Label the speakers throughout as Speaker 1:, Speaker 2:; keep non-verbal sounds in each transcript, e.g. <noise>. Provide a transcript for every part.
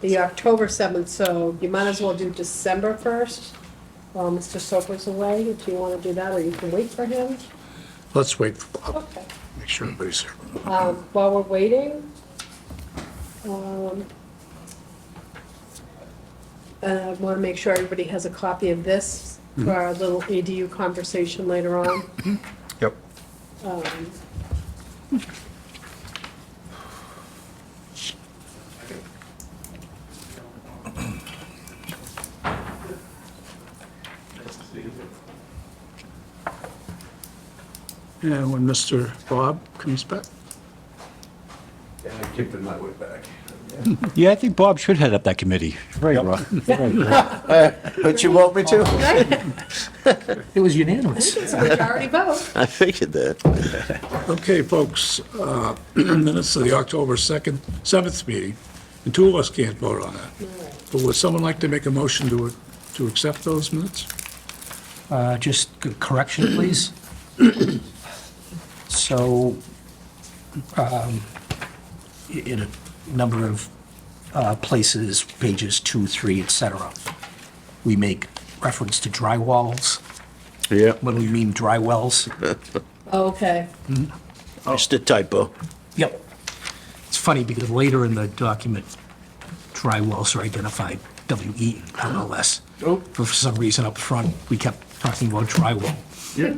Speaker 1: the October 7th, so you might as well do December 1st. While Mr. Soper's away, if you want to do that, or you can wait for him.
Speaker 2: Let's wait, for-
Speaker 1: Okay.
Speaker 2: make sure everybody's here.
Speaker 1: Um, While we're waiting, um, uh, want to make sure everybody has a copy of this for our little EDU conversation later on.
Speaker 3: Yep.
Speaker 2: And when Mr. Bob comes back,
Speaker 4: Yeah, I kicked it my way back.
Speaker 5: Yeah, I think Bob should head up that committee. Right, Rob.
Speaker 4: But you want me to?
Speaker 6: It was unanimous.
Speaker 1: It's a majority vote.
Speaker 4: I figured that.
Speaker 2: Okay, folks, uh, <clears throat> minutes of the October 2nd, 7th meeting, and two of us can't vote on that. But would someone like to make a motion to, to accept those minutes?
Speaker 6: Uh, Just a correction, please. So, um, i- in a number of uh, places, pages two, three, et cetera, we make reference to dry walls.
Speaker 4: Yeah.
Speaker 6: When we mean dry wells.
Speaker 1: Okay.
Speaker 4: Just a typo.
Speaker 6: Yep. It's funny because later in the document, dry wells are identified, W-E, no less.
Speaker 2: Oh.
Speaker 6: But for some reason up front, we kept talking about dry well.
Speaker 2: Yeah.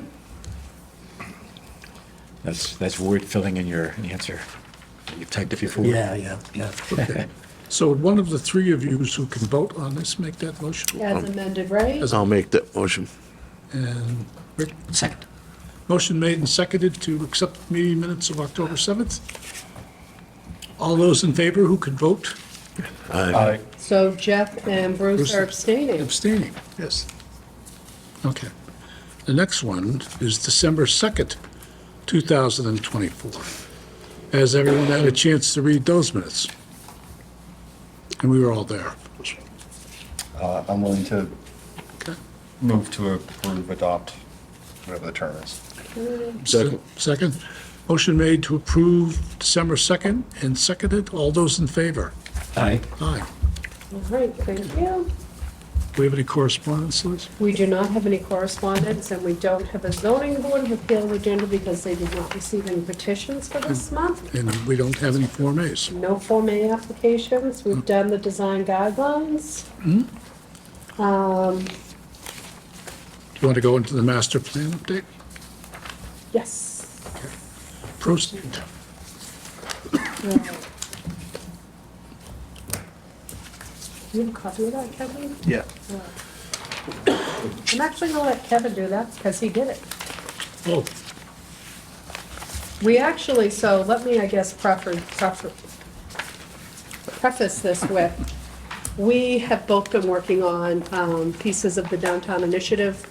Speaker 5: That's, that's word filling in your answer. You've typed it before.
Speaker 6: Yeah, yeah, yeah.
Speaker 2: So would one of the three of you who can vote on this make that motion?
Speaker 1: As amended, right?
Speaker 4: I'll make that motion.
Speaker 2: And Rick,
Speaker 6: Second.
Speaker 2: motion made and seconded to accept the meeting minutes of October 7th. All those in favor who could vote
Speaker 1: So Jeff and Bruce are abstaining.
Speaker 2: abstaining? Yes. Okay. The next one is December 2nd, 2024. Has everyone had a chance to read those minutes? And we were all there.
Speaker 3: Uh, I'm willing to
Speaker 2: Okay.
Speaker 3: move to approve, adopt, whatever the term is.
Speaker 4: Second.
Speaker 2: Second. Motion made to approve December 2nd and seconded. All those in favor?
Speaker 6: Aye.
Speaker 2: Aye.
Speaker 1: All right, thank you.
Speaker 2: Do we have any correspondence, Liz?
Speaker 1: We do not have any correspondence, and we don't have a zoning board of appeal agenda because they did not receive any petitions for this month.
Speaker 2: And we don't have any Form As.
Speaker 1: No Form A applications. We've done the design guidelines. Um,
Speaker 2: Do you want to go into the master plan update?
Speaker 1: yes.
Speaker 2: Proceed.
Speaker 1: Uh, Do you have a copy of that, Kevin? Uh,
Speaker 4: Yeah.
Speaker 1: I'm actually gonna let Kevin do that because he did it.
Speaker 2: Oh,
Speaker 1: We actually, so let me, I guess, prefer, prefer, preface this with, we have both been working on, um, pieces of the downtown initiative.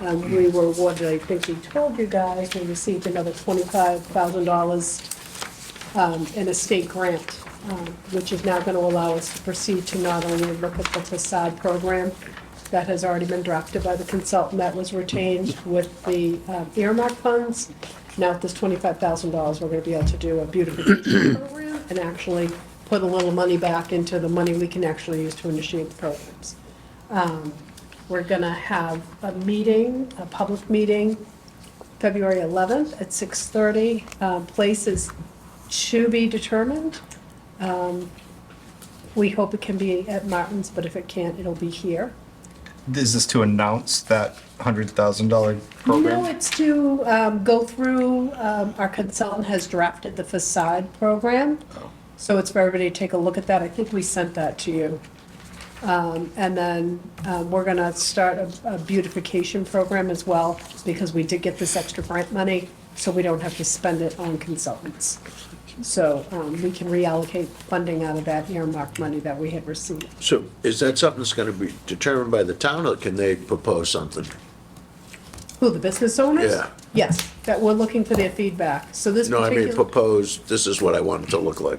Speaker 1: Um, we were awarded, I think we told you guys, we received another twenty-five thousand dollars, um, in a state grant, um, which is now gonna allow us to proceed to not only look at the facade program that has already been drafted by the consultant that was retained with the um, earmark funds. Now, with this twenty-five thousand dollars, we're gonna be able to do a beautification program and actually put a little money back into the money we can actually use to initiate the programs. Um, We're gonna have a meeting, a public meeting, February 11th at 6:30. Uh, Places to be determined. Um, We hope it can be at Martin's, but if it can't, it'll be here.
Speaker 3: Is this to announce that $100,000
Speaker 1: No,
Speaker 3: program?
Speaker 1: it's to um, go through, um, our consultant has drafted the facade program.
Speaker 4: Oh.
Speaker 1: So it's for everybody to take a look at that. I think we sent that to you. Um, And then uh, we're going to start a- a beautification program as well because we did get this extra grant money, so we don't have to spend it on consultants. So um, we can reallocate funding out of that earmark money that we had received.
Speaker 4: So is that something that's gonna be determined by the town, or can they propose something?
Speaker 1: Who, the business owners?
Speaker 4: Yeah.
Speaker 1: Yes, that we're looking for their feedback. So this
Speaker 4: No, I mean,
Speaker 1: particular.
Speaker 4: propose, this is what I want it to look like.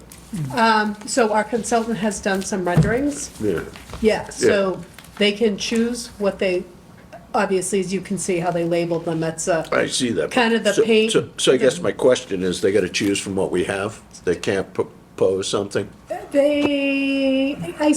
Speaker 1: So our consultant has done some renderings.
Speaker 4: Yeah.
Speaker 1: Yeah, so they can choose what they, obviously, as you can see how they labeled them, that's a,
Speaker 4: I see that.
Speaker 1: Kind of the
Speaker 4: So-
Speaker 1: paint-
Speaker 4: so- So I guess
Speaker 1: the-
Speaker 4: my question is, they gotta choose from what we have? They can't propose something?
Speaker 1: They, I